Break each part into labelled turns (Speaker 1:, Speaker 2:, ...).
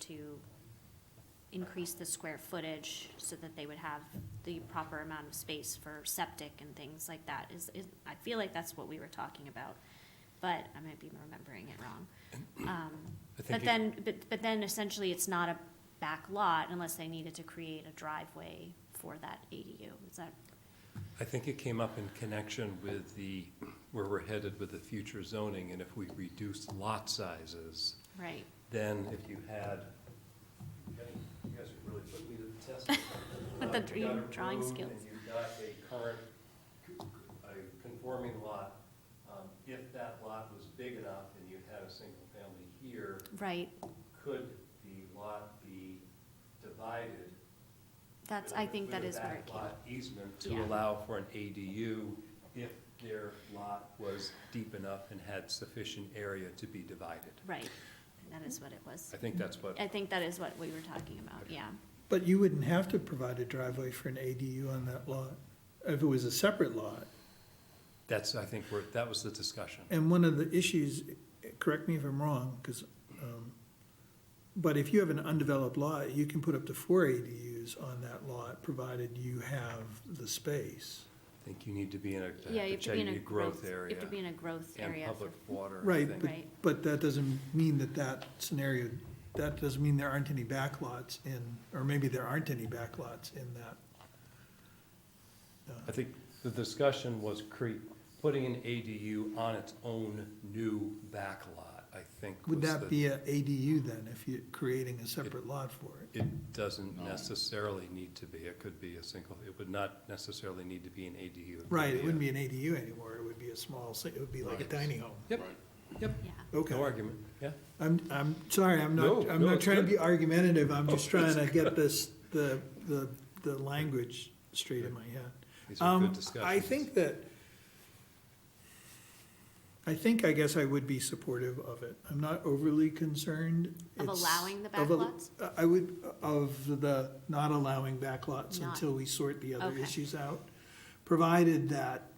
Speaker 1: to increase the square footage so that they would have the proper amount of space for septic and things like that is, is, I feel like that's what we were talking about, but I might be remembering it wrong. Um,
Speaker 2: I think
Speaker 1: But
Speaker 2: it-
Speaker 1: then, but, but then essentially it's not a back lot unless they needed to create a driveway for that ADU, is that?
Speaker 2: I think it came up in connection with the, where we're headed with the future zoning, and if we reduce lot sizes,
Speaker 1: Right.
Speaker 2: then if you had, you guys are really putting me to the test.
Speaker 1: With the
Speaker 2: Uh, you got a
Speaker 1: dr- drawing
Speaker 2: road
Speaker 1: skills.
Speaker 2: And you've got a current, a conforming lot, um, if that lot was big enough and you had a single family here,
Speaker 1: Right,
Speaker 2: could the lot be divided?
Speaker 1: that's,
Speaker 2: with a-
Speaker 1: I think that is where it
Speaker 2: With a
Speaker 1: came.
Speaker 2: backlot easement to
Speaker 1: Yeah.
Speaker 2: allow for an ADU if their lot was deep enough and had sufficient area to be divided.
Speaker 1: Right, that is what it was.
Speaker 2: I think that's what,
Speaker 1: I think that is what we were talking about, yeah.
Speaker 3: But you wouldn't have to provide a driveway for an ADU on that lot, if it was a separate lot.
Speaker 2: that's, I think, where, that was the discussion.
Speaker 3: And one of the issues, correct me if I'm wrong, because, um, but if you have an undeveloped lot, you can put up to four ADUs on that lot, provided you have the space.
Speaker 2: I think you need to be in a, to
Speaker 1: Yeah, you have
Speaker 2: have to
Speaker 1: to be
Speaker 2: check
Speaker 1: in a
Speaker 2: your growth
Speaker 1: growth,
Speaker 2: area.
Speaker 1: you have to be in a growth area.
Speaker 2: And
Speaker 1: for-
Speaker 2: public water. I
Speaker 3: Right,
Speaker 2: think.
Speaker 3: but,
Speaker 1: Right.
Speaker 3: but that doesn't mean that that scenario, that doesn't mean there aren't any backlots in, or maybe there aren't any backlots in that.
Speaker 2: I think the discussion was cre, putting an ADU on its own new backlot, I think was
Speaker 3: Would
Speaker 2: the-
Speaker 3: that be an ADU then, if you're creating a separate lot for it?
Speaker 2: It doesn't necessarily need to be, it could be a single, it would not necessarily need to be an ADU. could
Speaker 3: Right, it wouldn't
Speaker 2: a-
Speaker 3: be an ADU anymore, it would be a small, si- it would be like a
Speaker 2: Right.
Speaker 3: tiny home.
Speaker 2: Yep, yep,
Speaker 1: Yeah,
Speaker 3: Okay,
Speaker 2: no argument, yeah.
Speaker 3: I'm, I'm sorry, I'm not,
Speaker 2: No,
Speaker 3: I'm
Speaker 2: no,
Speaker 3: not
Speaker 2: it's
Speaker 3: trying to
Speaker 2: good.
Speaker 3: be argumentative, I'm just
Speaker 2: Oh,
Speaker 3: trying to
Speaker 2: it's
Speaker 3: get this, the, the, the language straight in my head.
Speaker 2: These are good
Speaker 3: Um,
Speaker 2: discussions.
Speaker 3: I think that, I think, I guess I would be supportive of it. I'm not overly concerned.
Speaker 1: Of
Speaker 3: It's-
Speaker 1: allowing the
Speaker 3: of a-
Speaker 1: backlots?
Speaker 3: I would, of the not allowing backlots
Speaker 1: Not-
Speaker 3: until we sort the other
Speaker 1: Okay.
Speaker 3: issues out. Provided that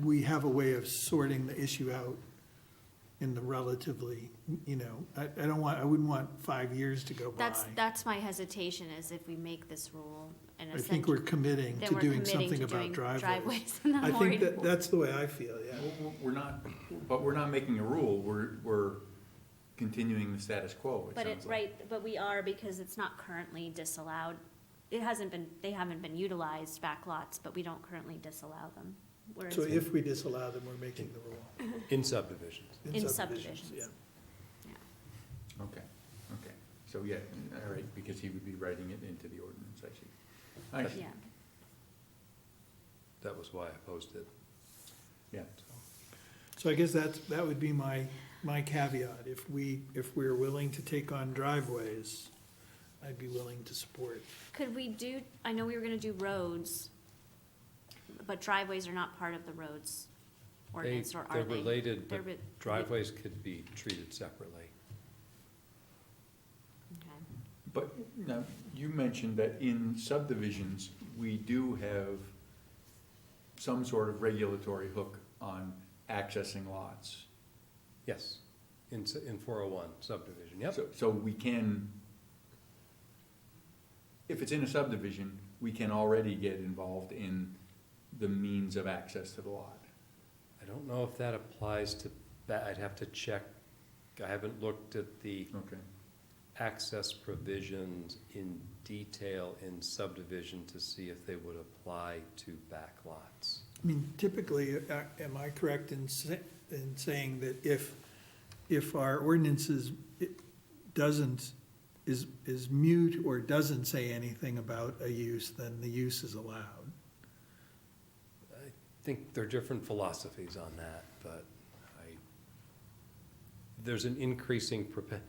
Speaker 3: we have a way of sorting the issue out in the relatively, you know, I, I don't want, I wouldn't want five years to go by.
Speaker 1: that's, that's my hesitation is if we make this rule and
Speaker 3: I think we're
Speaker 1: essentially,
Speaker 3: committing
Speaker 1: then
Speaker 3: to
Speaker 1: we're
Speaker 3: doing
Speaker 1: committing
Speaker 3: something
Speaker 1: to
Speaker 3: about
Speaker 1: doing
Speaker 3: driveways.
Speaker 1: driveways. and I'm
Speaker 3: I
Speaker 1: worried-
Speaker 3: think that, that's the way I feel, yeah.
Speaker 4: Well, we're- We're not, but we're not making a rule, we're, we're continuing the status quo, it
Speaker 1: But it,
Speaker 4: sounds like.
Speaker 1: right, but we are because it's not currently disallowed. It hasn't been, they haven't been utilized backlots, but we don't currently disallow them. Whereas
Speaker 3: So if we disallow them, we're making the rule.
Speaker 2: In subdivisions.
Speaker 1: In subdivisions.
Speaker 3: Yeah.
Speaker 4: Okay, okay, so yeah, all right, because he would be writing it into the ordinance, I see. I see.
Speaker 1: Yeah,
Speaker 2: That was why I opposed it.
Speaker 4: Yeah,
Speaker 3: So I guess that's, that would be my, my caveat. If we, if we're willing to take on driveways, I'd be willing to support.
Speaker 1: could we do, I know we were gonna do roads, but driveways are not part of the roads
Speaker 2: They,
Speaker 1: ordinance, or are
Speaker 2: they're
Speaker 1: they?
Speaker 2: related,
Speaker 1: They're
Speaker 2: but
Speaker 1: re-
Speaker 2: driveways could be treated separately.
Speaker 1: Okay.
Speaker 4: but now, you mentioned that in subdivisions, we do have some sort of regulatory hook on accessing lots.
Speaker 2: Yes, in, s- in four oh one subdivision, yep.
Speaker 4: So, so we can, if it's in a subdivision, we can already get involved in the means of access to the lot.
Speaker 2: I don't know if that applies to, that, I'd have to check. I haven't looked at the
Speaker 4: Okay.
Speaker 2: access provisions in detail in subdivision to see if they would apply to backlots.
Speaker 3: I mean, typically, uh, am I correct in sa- in saying that if, if our ordinances it doesn't, is, is mute or doesn't say anything about a use, then the use is allowed?
Speaker 2: I think there are different philosophies on that, but I, there's an increasing propen,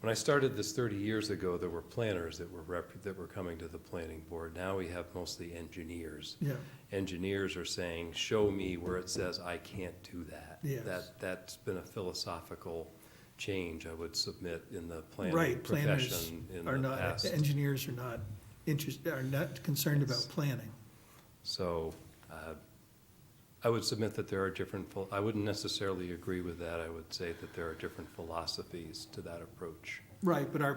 Speaker 2: when I started this thirty years ago, there were planners that were rep, that were coming to the planning board. Now we have mostly engineers.
Speaker 3: Yeah,
Speaker 2: engineers are saying, show me where it says I can't do that.
Speaker 3: Yes.
Speaker 2: That, that's been a philosophical change I would submit in the planning
Speaker 3: right, planners
Speaker 2: profession in
Speaker 3: are
Speaker 2: the
Speaker 3: not,
Speaker 2: past.
Speaker 3: engineers are not interested, are not concerned about
Speaker 2: Yes.
Speaker 3: planning.
Speaker 2: So, uh, I would submit that there are different, phil- I wouldn't necessarily agree with that. I would say that there are different philosophies to that approach.
Speaker 3: Right, but our